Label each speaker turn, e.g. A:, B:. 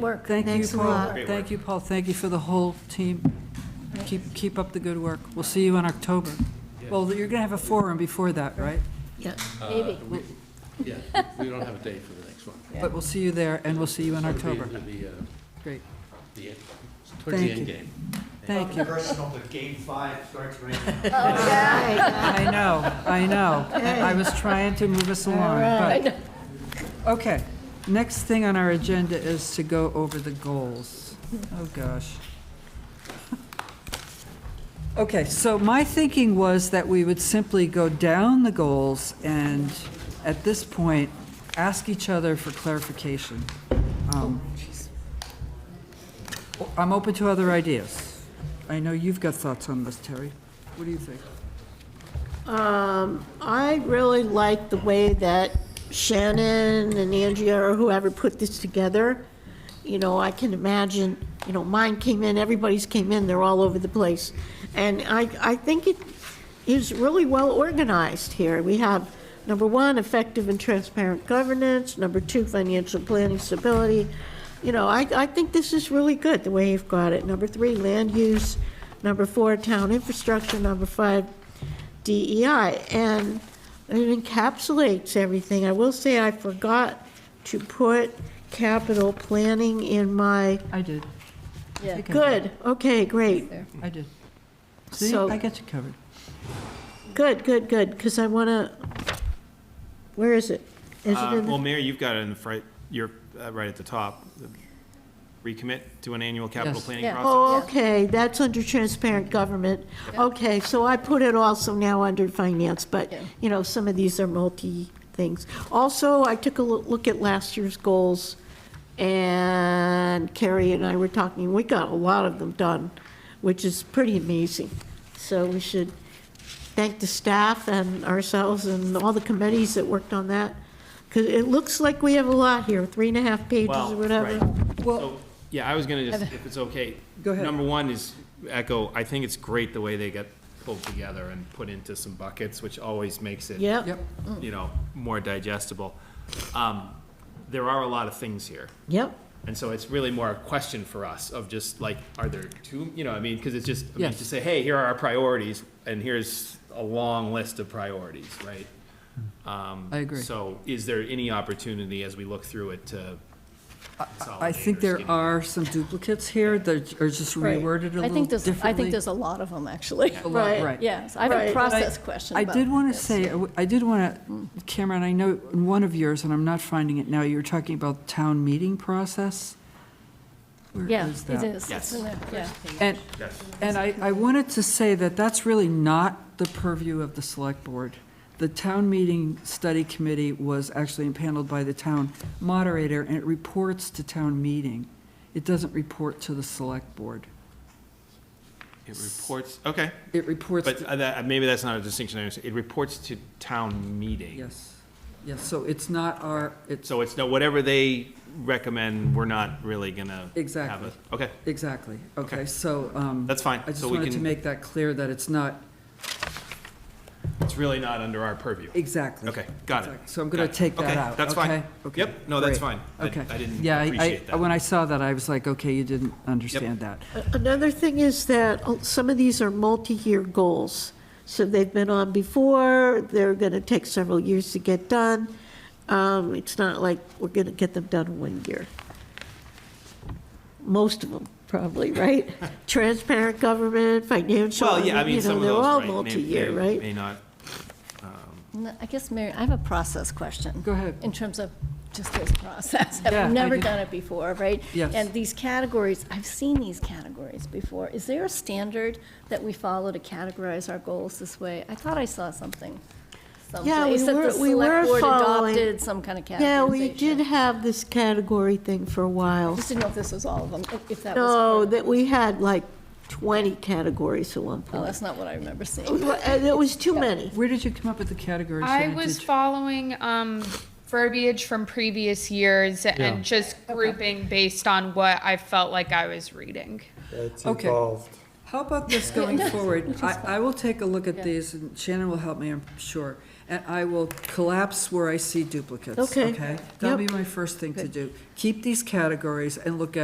A: work.
B: Thank you,
A: Thanks a
B: Paul.
A: lot.
B: Thank you, Paul. Thank you for the whole team. Keep, keep up the good work. We'll see you in October. Well, you're going to have a forum before that, right?
A: Yeah, maybe.
C: Yeah, we don't have a date for the next one.
B: But we'll see you there, and we'll see you in
C: It'll be-
B: October.
C: It'll be, uh,
B: Great.
C: the, end- towards the
B: Thank
C: end
B: you.
C: game.
B: Thank you.
D: Personal, but game five starts right now.
B: I know, I know. I was trying to move us along, but, okay. Next thing on our agenda is to go over the goals. Oh, gosh. Okay, so my thinking was that we would simply go down the goals and, at this point, ask each other for clarification. Um, I'm open to other ideas. I know you've got thoughts on this, Terry. What do you think?
E: I really like the way that Shannon and Andrea or whoever put this together. You know, I can imagine, you know, mine came in, everybody's came in, they're all over the place. And I, I think it is really well organized here. We have, number one, effective and transparent governance, number two, financial planning stability. You know, I, I think this is really good, the way you've got it. Number three, land use, number four, town infrastructure, number five, DEI, E and it encapsulates everything. I will say I forgot to put capital planning in my,
B: I did.
A: Yeah.
B: Think I did.
E: good, okay, great.
B: I did. See,
E: So-
B: I got you covered.
E: Good, good, good, because I want to, where is it? Is it
F: Uh,
E: in
F: Well,
E: the,
F: Mayor, you've got it in the front, you're uh, right at the top. Recommit to an annual capital
B: Yes.
F: planning
A: Yeah.
F: process.
E: oh, okay, that's under transparent government. Okay, so I put it also now under finance, but,
A: Yeah.
E: you know, some of these are multi things. Also, I took a loo- look at last year's goals, and Carrie and I were talking, we got a lot of them done, which is pretty amazing. So we should thank the staff and ourselves and all the committees that worked on that, because it looks like we have a lot here, three and a half pages
F: Well,
E: or whatever.
F: right.
B: Oh, Well-
F: So, Yeah, I was gonna just, if it's okay.
B: Go ahead.
F: Number one is echo, I think it's great the way they got pulled together and put into some buckets, which always makes it.
E: Yep,
B: Yep,
F: You know, more digestible. Um, There are a lot of things here.
E: yep,
F: And so it's really more a question for us of just like, are there two, you know, I mean, because it's just, I mean,
B: Yes.
F: to say, hey, here are our priorities, and here's a long list of priorities, right? Um,
B: I agree.
F: So is there any opportunity as we look through it to consolidate?
B: I think
F: or
B: there
F: skinny?
B: are some duplicates here that are just
E: Right.
B: reworded a
A: I
B: little
A: think there's,
B: differently.
A: I think there's a lot of them, actually.
B: A lot,
E: Right.
B: Right.
A: Yes, I have a
E: Right.
A: process question
B: I
A: about
B: did want to
A: this.
B: say, I w- I did want to, Cameron, I know in one of yours, and I'm not finding it now, you were talking about town meeting process. Where
A: Yeah,
B: is
A: it
B: that?
A: is. It's
F: Yes.
A: in there, yeah.
B: And,
F: Yes.
B: and I, I wanted to say that that's really not the purview of the select board. The town meeting study committee was actually impaneled by the town moderator, and it reports to town meeting. It doesn't report to the select board.
F: It reports, okay,
B: It reports,
F: but
B: to-
F: uh, that- maybe that's not a distinction, I understand. it reports to town meeting.
B: yes, yes, so it's not our, it's,
F: So it's, no, whatever they recommend, we're not really gonna. have
B: Exactly.
F: it. Okay,
B: exactly, okay,
F: Okay.
B: so, um,
F: that's fine.
B: I just
F: So we
B: wanted to
F: can-
B: make that clear that it's not,
F: It's really not under our purview.
B: exactly.
F: Okay, got it.
B: Exactly. So I'm gonna
F: Got it.
B: take that
F: Okay,
B: out,
F: that's fine.
B: okay? Okay,
F: Yep, no, that's
B: great.
F: fine. I-
B: Okay.
F: I didn't
B: Yeah,
F: appreciate that.
B: When I saw that, I was like, okay, you didn't understand that.
E: Another thing is that uh, some of these are multi-year goals. So they've been on before, they're going to take several years to get done. Um, It's not like we're going to get them done in one year. Most of them, probably, right? Transparent government, financial,
F: Well, yeah, I mean,
E: you know,
F: some of
E: they're
F: those,
E: all
F: right, may-
E: multi-year,
F: may-
E: right?
F: May not,
A: No, I guess, Mary, I have a process question.
B: Go ahead.
A: In terms of just this process.
B: Yeah, I
A: I've never
B: did.
A: done it before, right?
B: Yes.
A: And these categories, I've seen these categories before. Is there a standard that we follow to categorize our goals this way? I thought I saw something.
E: Yeah, we
A: someplace that the
E: were- we were
A: select board
E: following-
A: Adopted some kind of categorization.
E: Yeah, we did have this category thing for a
A: I
E: while.
A: Just didn't know if this was all of them, if- if that was.
E: No, that we had like 20 categories at one
A: Oh,
E: point.
A: that's not what I remember seeing.
E: And It was too many.
B: Where did you come up with the category?
G: I
B: Shannon?
G: was
B: Did you-
G: following um, verbiage from previous years
B: Yeah.
G: and just grouping based on what I felt like I was reading.
D: It's
B: Okay.
D: evolved.
B: How about this going forward? I, I will take a look at these, and Shannon will help me, I'm sure. and I will collapse where I see duplicates,
E: Okay.
B: okay? That'll
E: Yep.
B: be my first thing to do. Keep these categories and look at.